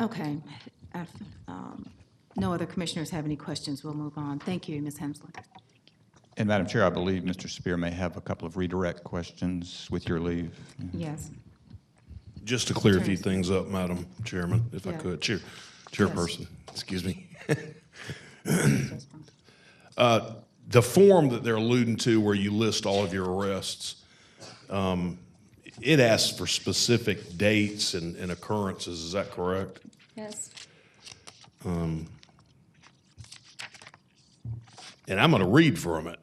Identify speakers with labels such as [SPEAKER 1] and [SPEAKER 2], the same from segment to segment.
[SPEAKER 1] Okay. If, um, No other commissioners have any questions, we'll move on. Thank you, Ms. Hensley.
[SPEAKER 2] And Madam Chair, I believe Mr. Spear may have a couple of redirect questions with your leave.
[SPEAKER 1] Yes.
[SPEAKER 3] Just to clear a few things up, Madam Chairman, if I
[SPEAKER 1] Yeah.
[SPEAKER 3] could, Chair, Chairperson, excuse me. The form that they're alluding to where you list all of your arrests, um, it asks for specific dates and, and occurrences, is that correct?
[SPEAKER 1] Yes.
[SPEAKER 3] And I'm going to read from it.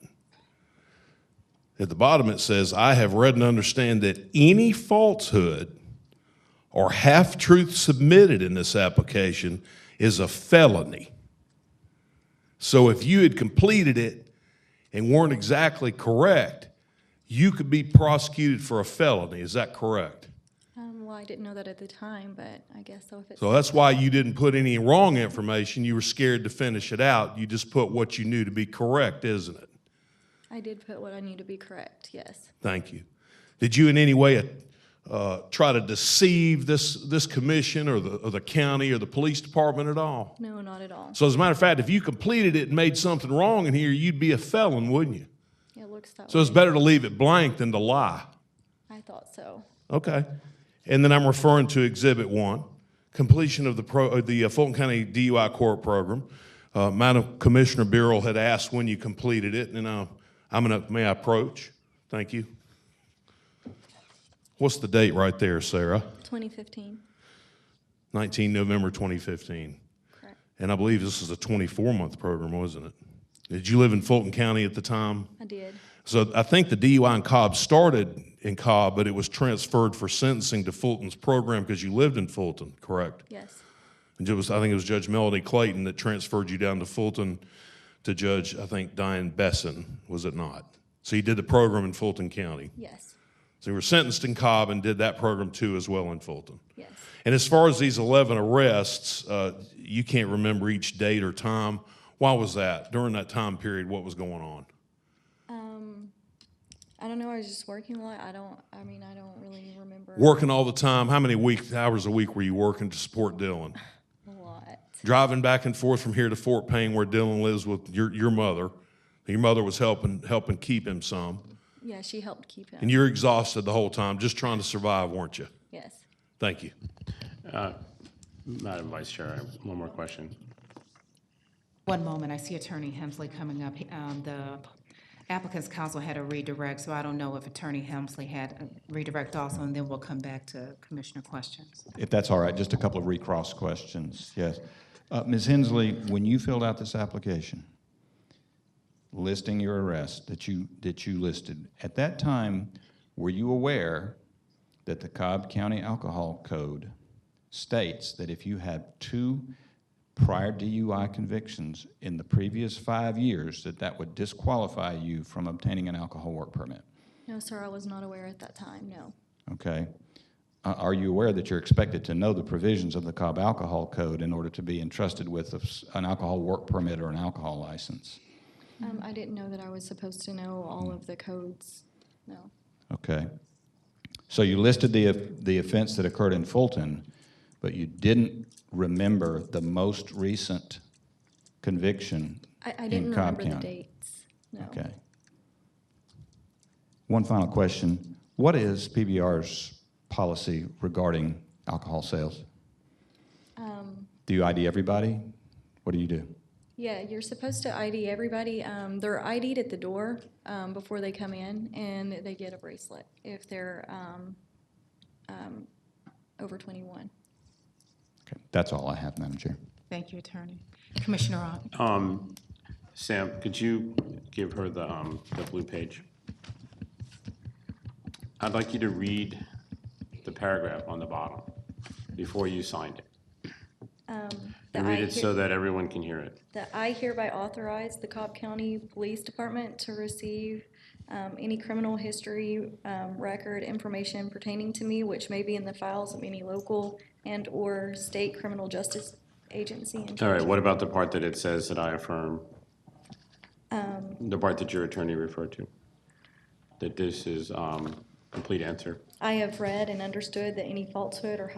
[SPEAKER 3] At the bottom, it says, I have read and understand that any falsehood or half truth submitted in this application is a felony. So if you had completed it and weren't exactly correct, you could be prosecuted for a felony. Is that correct?
[SPEAKER 4] Um, well, I didn't know that at the time, but I guess so if it's,
[SPEAKER 3] So that's why you didn't put any wrong information. You were scared to finish it out. You just put what you knew to be correct, isn't it?
[SPEAKER 4] I did put what I knew to be correct, yes.
[SPEAKER 3] Thank you. Did you in any way uh, try to deceive this, this commission or the, or the county or the police department at all?
[SPEAKER 4] No, not at all.
[SPEAKER 3] So as a matter of fact, if you completed it and made something wrong in here, you'd be a felon, wouldn't you?
[SPEAKER 4] It looks that
[SPEAKER 3] So it's
[SPEAKER 4] way.
[SPEAKER 3] better to leave it blank than to lie.
[SPEAKER 4] I thought so.
[SPEAKER 3] Okay. And then I'm referring to Exhibit One, completion of the pro, uh, the uh, Fulton County DUI Court Program. Uh, Madam Commissioner Burrell had asked when you completed it, and uh, I'm gonna, may I approach? Thank you. What's the date right there, Sarah?
[SPEAKER 4] 2015,
[SPEAKER 3] 19 November 2015.
[SPEAKER 4] correct.
[SPEAKER 3] And I believe this is a 24-month program, wasn't it? Did you live in Fulton County at the time?
[SPEAKER 4] I did.
[SPEAKER 3] So I think the DUI in Cobb started in Cobb, but it was transferred for sentencing to Fulton's program because you lived in Fulton, correct?
[SPEAKER 4] Yes,
[SPEAKER 3] And it was, I think it was Judge Melody Clayton that transferred you down to Fulton to Judge, I think, Diane Besson, was it not? So you did the program in Fulton County.
[SPEAKER 4] yes,
[SPEAKER 3] So you were sentenced in Cobb and did that program too as well in Fulton.
[SPEAKER 4] yes.
[SPEAKER 3] And as far as these 11 arrests, uh, you can't remember each date or time. Why was that? During that time period, what was going on?
[SPEAKER 4] I don't know, I was just working a lot. I don't, I mean, I don't really remember
[SPEAKER 3] Working all the time. How many week hours a week were you working to support Dylan?
[SPEAKER 4] a lot.
[SPEAKER 3] Driving back and forth from here to Fort Payne, where Dylan lives with your your mother. Your mother was helping helping keep him some,
[SPEAKER 4] Yeah, she helped keep him.
[SPEAKER 3] and you're exhausted the whole time, just trying to survive, weren't you?
[SPEAKER 4] Yes.
[SPEAKER 3] Thank you.
[SPEAKER 5] Madam Vice Chair, I have one more question.
[SPEAKER 1] One moment, I see Attorney Hemsley coming up. He- um, The applicant's counsel had a redirect, so I don't know if Attorney Hemsley had a redirect also, and then we'll come back to commissioner questions.
[SPEAKER 2] If that's all right, just a couple of recross questions, yes. Uh, Ms. Hensley, when you filled out this application, listing your arrests that you, that you listed, at that time, were you aware that the Cobb County Alcohol Code states that if you have two prior DUI convictions in the previous five years, that that would disqualify you from obtaining an alcohol work permit?
[SPEAKER 4] No, sir, I was not aware at that time, no.
[SPEAKER 2] Okay. Uh, Are you aware that you're expected to know the provisions of the Cobb Alcohol Code in order to be entrusted with a s- an alcohol work permit or an alcohol license?
[SPEAKER 4] Um, I didn't know that I was supposed to know all of the codes, no.
[SPEAKER 2] Okay. So you listed the, of- the offense that occurred in Fulton, but you didn't remember the most recent conviction
[SPEAKER 4] I, I
[SPEAKER 2] In
[SPEAKER 4] didn't
[SPEAKER 2] Cobb
[SPEAKER 4] remember the
[SPEAKER 2] County.
[SPEAKER 4] dates, no.
[SPEAKER 2] Okay. One final question. What is PBR's policy regarding alcohol sales? Do you ID everybody? What do you do?
[SPEAKER 4] Yeah, you're supposed to ID everybody. Um, they're ID'd at the door, um, before they come in and they get a bracelet if they're, um, um, over twenty-one.
[SPEAKER 2] Okay, that's all I have, Madam Chair.
[SPEAKER 1] Thank you, Attorney. Commissioner Ogden?
[SPEAKER 5] Um, Sam, could you give her the, um, the blue page? I'd like you to read the paragraph on the bottom before you signed it.
[SPEAKER 4] The
[SPEAKER 5] And read
[SPEAKER 4] I
[SPEAKER 5] it
[SPEAKER 4] hear-
[SPEAKER 5] so that everyone can hear it.
[SPEAKER 4] That I hereby authorize the Cobb County Police Department to receive um, any criminal history um, record information pertaining to me which may be in the files of any local and/or state criminal justice agency. and
[SPEAKER 5] All right, what about the part that it says that I affirm? The part that your attorney referred to? That this is, um, complete answer?
[SPEAKER 4] I have read and understood that any falsehood or